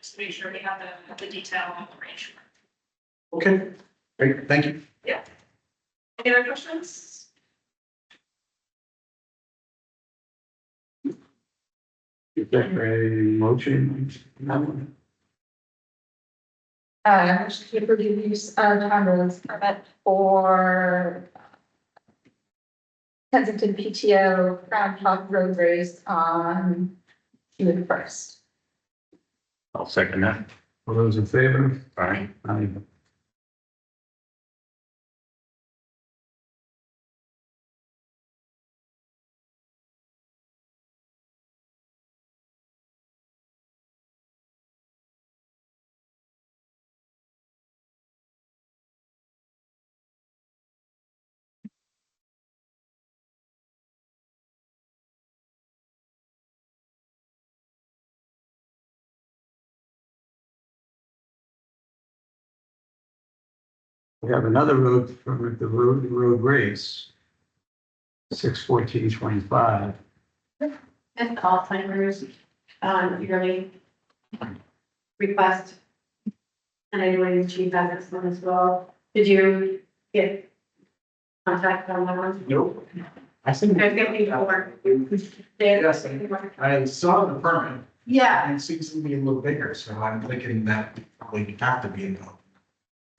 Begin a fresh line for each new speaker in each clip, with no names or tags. just make sure we have the, the detail on the range.
Okay, great, thank you.
Any other questions?
Is there a motion? on that one?
Uh, motion to approve the use of town roads permit for Kensington PTO Groundhog Road Race on June first.
I'll second that.
All those in favor?
All right.
Aye. We have another road from the road, road race. Six fourteen twenty-five.
And Alzheimer's, um, yearly request. And I know the chief has this one as well. Did you get contact on that one?
Nope. I think.
There's gonna be more. They-
Yes, I- I saw the permit
Yeah,
and it seems to be a little bigger, so I'm thinking that probably would have to be involved.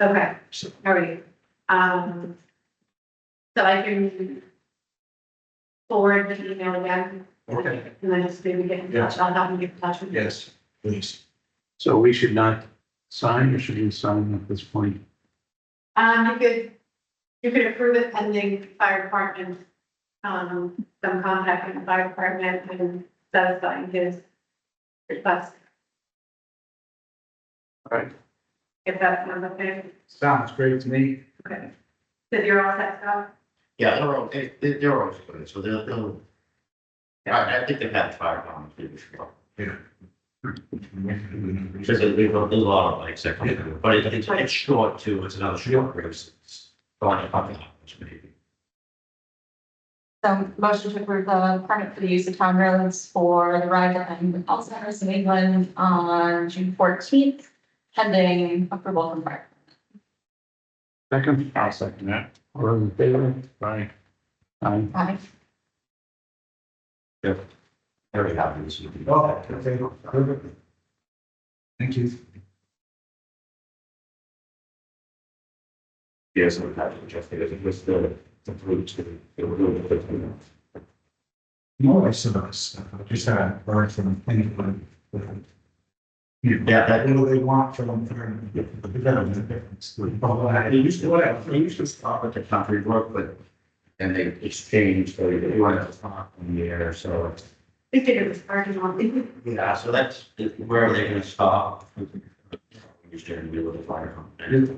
okay,
So
all right. Um, so I can forward the email again.
Okay.
And then just maybe get in touch. I'll have them get in touch with you.
Yes, please. So we should not sign or should we sign at this point?
Um, you could, you could approve it pending fire department, um, some contact with the fire department and satisfying his request,
All right,
if that's one of the,
sounds great to me.
that you're all set up.
Yeah, they're all, they, they- they're always good, so they'll, they'll. I, I think they've had fire problems before. Because there's a there's a lot of like second, but it- it's, it's short too, it's another short race. It's Going to public, which maybe.
So motion to approve the permit for the use of town roads for the ride and Alzheimer's in England on June fourteenth, pending approval from fire.
Second,
I'll second that.
all those in favor?
Right.
Aye.
Aye.
There we have it.
Oh, okay, perfect. Thank you.
Yes, I'm happy to just, it was the, the food to, it was a little bit, you know.
No, I saw this, I just had a word from anyone.
Yeah, that-
What do they want from them? But that was a difference. Oh, I-
They used to, whatever, they used to stop at the country work, but then they exchanged, so they went to talk in the air, so.
They did it was parking lot.
Yeah, so that's where they're gonna stop. Used to be with the fire company.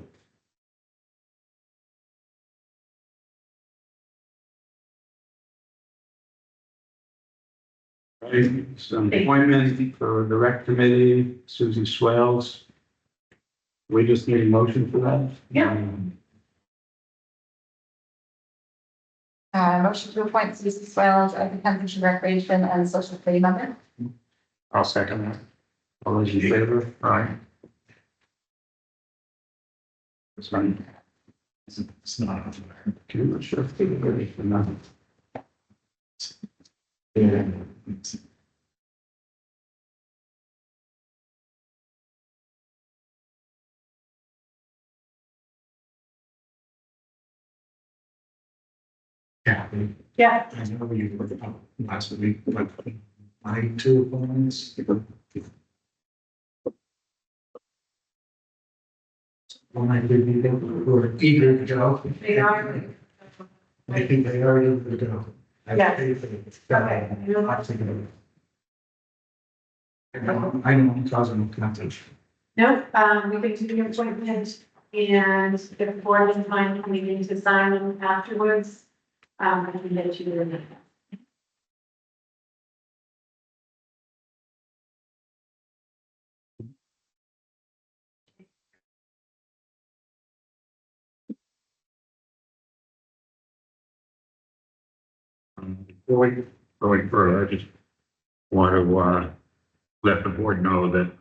Right, Some appointment for the rec committee, Susie Swales. We just need a motion for that? Um,
Yeah.
Uh, motion to appoint Susan Swales as the Kensington Recreation and Social Committee member.
I'll second that.
All those in favor?
Right.
It's fine.
It's not.
Okay, we're sure. Yeah. Yeah.
Yeah,
I know you were up last week, but my two opponents. When I did meet them, who were eager to go.
they are.
I think they are eager to go. I
Yeah.
paid for it.
Okay.
I'm thinking of it. I know, I know, I'm causing contention.
No, um, we can do the appointment and if the board is fine coming in to sign them afterwards, um, I can get you the minutes.
Going, going further, I just want to, uh, let the board know that